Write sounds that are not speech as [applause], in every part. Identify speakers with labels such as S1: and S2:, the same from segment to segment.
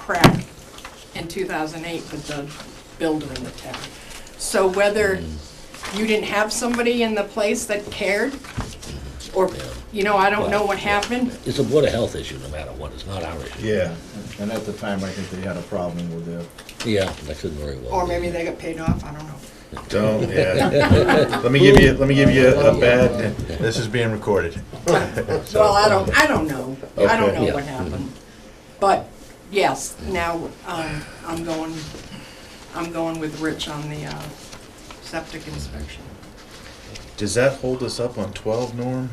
S1: crack in 2008 with the builder in the town. So whether you didn't have somebody in the place that cared, or, you know, I don't know what happened,
S2: It's a Board of Health issue no matter what, it's not our issue.
S3: Yeah, and at the time, I think they had a problem with their.
S2: Yeah, that could very well.
S1: or
S2: be. [laughs]
S1: maybe they got paid off, I don't know.
S3: [laughs] Don't, yeah. Let me give you, let me give you a bad, this is being recorded.
S1: Well, I don't, I don't know. I don't
S3: Okay.
S1: know what
S2: Yeah.
S1: happened. But, yes, now, um, I'm going, I'm going with Rich on the, uh, septic inspection.
S3: Does that hold us up on twelve, Norm?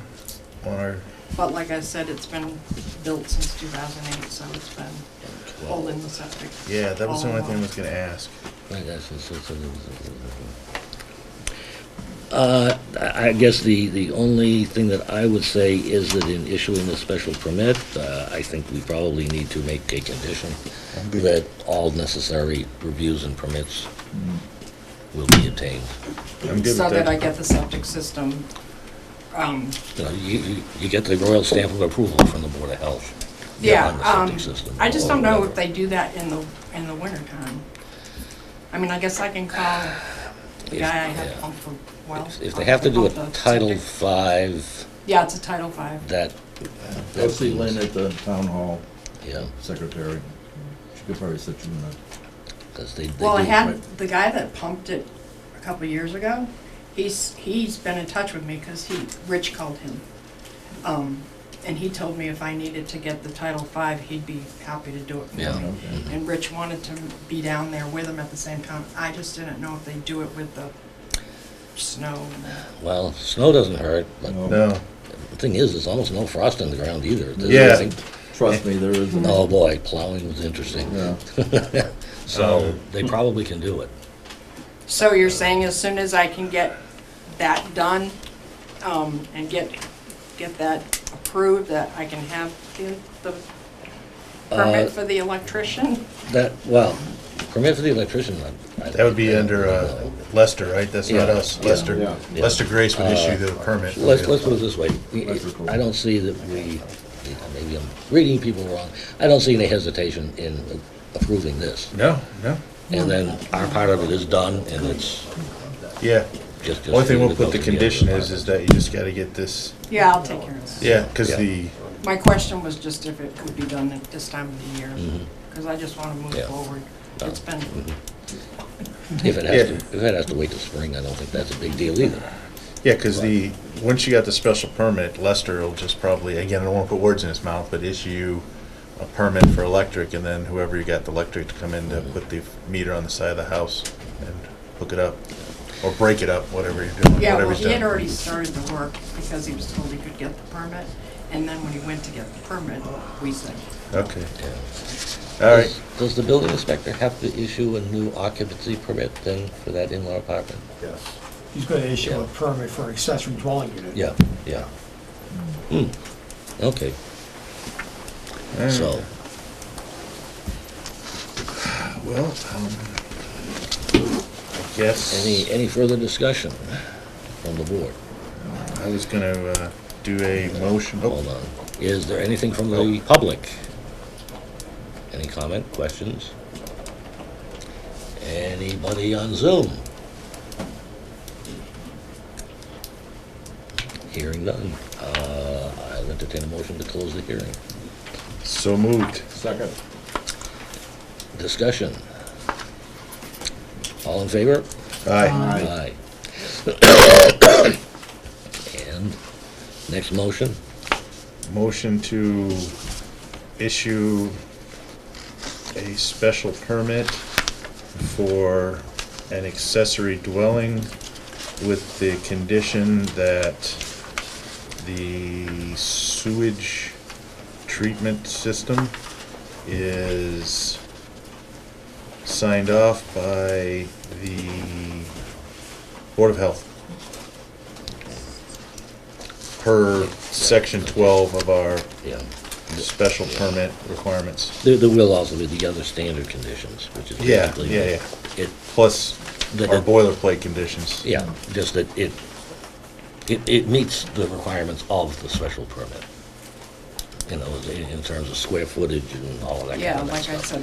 S3: On our,
S1: But like I said, it's been built since two thousand eight, so it's been holding the septic.
S3: yeah, that was the
S1: all
S3: only thing I
S1: along.
S3: was gonna ask.
S2: I guess it's- it's- it's- Uh, I I guess the, the only thing that I would say is that in issuing a special permit, uh, I think we probably need to make a condition that all necessary reviews and permits
S3: Mm.
S2: will be obtained.
S3: I'm good with
S1: So that I
S3: that.
S1: get the septic system, um,
S2: You know, you, you- you get the royal stamp of approval from the Board of Health.
S1: yeah,
S2: on the
S1: um,
S2: septic system
S1: I just
S2: or
S1: don't know if
S2: whatever.
S1: they do that in the, in the winter time. I mean, I guess I can call the
S2: If-
S1: guy I have
S2: yeah.
S1: pump for, well.
S2: If they have to do a
S1: pump the
S2: Title
S1: septic.
S2: Five,
S1: Yeah, it's a Title Five.
S2: that,
S3: Go see Lynn at the town hall
S2: yeah,
S3: secretary. She could probably sit you in a.
S2: because they. they
S1: Well, I
S2: do-
S1: had, the guy that pumped it a couple years ago, he's, he's been in touch with me because he, Rich called him. Um, And he told me if I needed to get the Title V, he'd be happy to do it for
S2: Yeah. Mm-hmm.
S1: me.
S3: Okay.
S1: And Rich wanted to be down there with him at the same time. I just didn't know if they do it with the snow. and that.
S2: Well, snow doesn't hurt, but
S3: No,
S2: the thing is, there's almost no frost in the ground either. There's-
S3: Yeah.
S2: I think-
S4: Trust me, there isn't.
S2: Oh, boy, plowing was interesting.
S3: no.
S2: [laughs]
S3: Um,
S2: So they probably can do it.
S1: So you're saying as soon as I can get that done um, and get, get that approved, that I can have the the
S2: Uh,
S1: permit for the electrician?
S2: That, well, permit for the electrician, I- I.
S3: That would be under uh, Lester, right? That's not
S2: Yeah.
S3: us,
S2: Yeah.
S3: Lester.
S4: Yeah.
S3: Lester Grace would issue the permit.
S2: Let's, let's put it this way.
S4: Electrical.
S2: I don't see that we, maybe I'm reading people wrong. I don't see any hesitation in approving this.
S3: No, no,
S2: And then our part of it is done and it's
S3: yeah.
S2: just.
S3: Only thing we'll
S2: just
S3: put the
S2: goes to other
S3: condition is,
S2: part.
S3: is that you just gotta get this,
S1: Yeah, I'll take care of that.
S3: yeah, because
S2: Yeah.
S3: the,
S1: My question was just if it could be done at this time of the year, because I just want to move
S2: Yeah.
S1: forward. It's been,
S2: If it has to,
S3: Yeah.
S2: if it has to wait till spring, I don't think that's a big deal either.
S3: yeah, because the, once you got the special permit, Lester will just probably, again, I don't want to put words in his mouth, but issue a permit for electric, and then whoever you got the electric to come in to put the meter on the side of the house and hook it up, or break it up, whatever you're doing,
S1: yeah, well,
S3: whatever's
S1: he had
S3: done.
S1: already started the work because he was told he could get the permit. And then when he went to get the permit, we said,
S3: Okay,
S2: Yeah.
S3: all right.
S2: Does- Does the building inspector have to issue a new occupancy permit then for that in-law apartment?
S4: Yes.
S5: He's gonna issue a
S2: Yeah.
S5: permit for accessory dwelling unit.
S2: Yeah, yeah. Hmm, okay,
S3: all right.
S2: so,
S3: Well, um, I guess.
S2: any, any further discussion from the board?
S3: I was gonna uh, do a motion. oh,
S2: Hold on. Is there anything from the public? Any comment, questions? Anybody on Zoom? Hearing none. Uh, I'll entertain a motion to close the hearing.
S3: So moved.
S4: Second.
S2: Discussion. All in favor?
S3: Aye.
S4: Aye.
S2: [coughs] And next motion?
S3: Motion to issue a special permit for an accessory dwelling with the condition that the sewage treatment system is signed off by the Board of Health. Per section twelve of our
S2: Yeah.
S3: special permit requirements.
S2: There, there will also be the other standard conditions, which is
S3: Yeah,
S2: basically.
S3: yeah, yeah.
S2: It,
S3: Plus
S2: The-
S3: our
S2: the-
S3: boilerplate conditions.
S2: Yeah, just that it, it, it meets the requirements of the special permit. You know, in, in terms of square footage and all of that
S1: yeah,
S2: kind of
S1: like I
S2: stuff.
S1: said,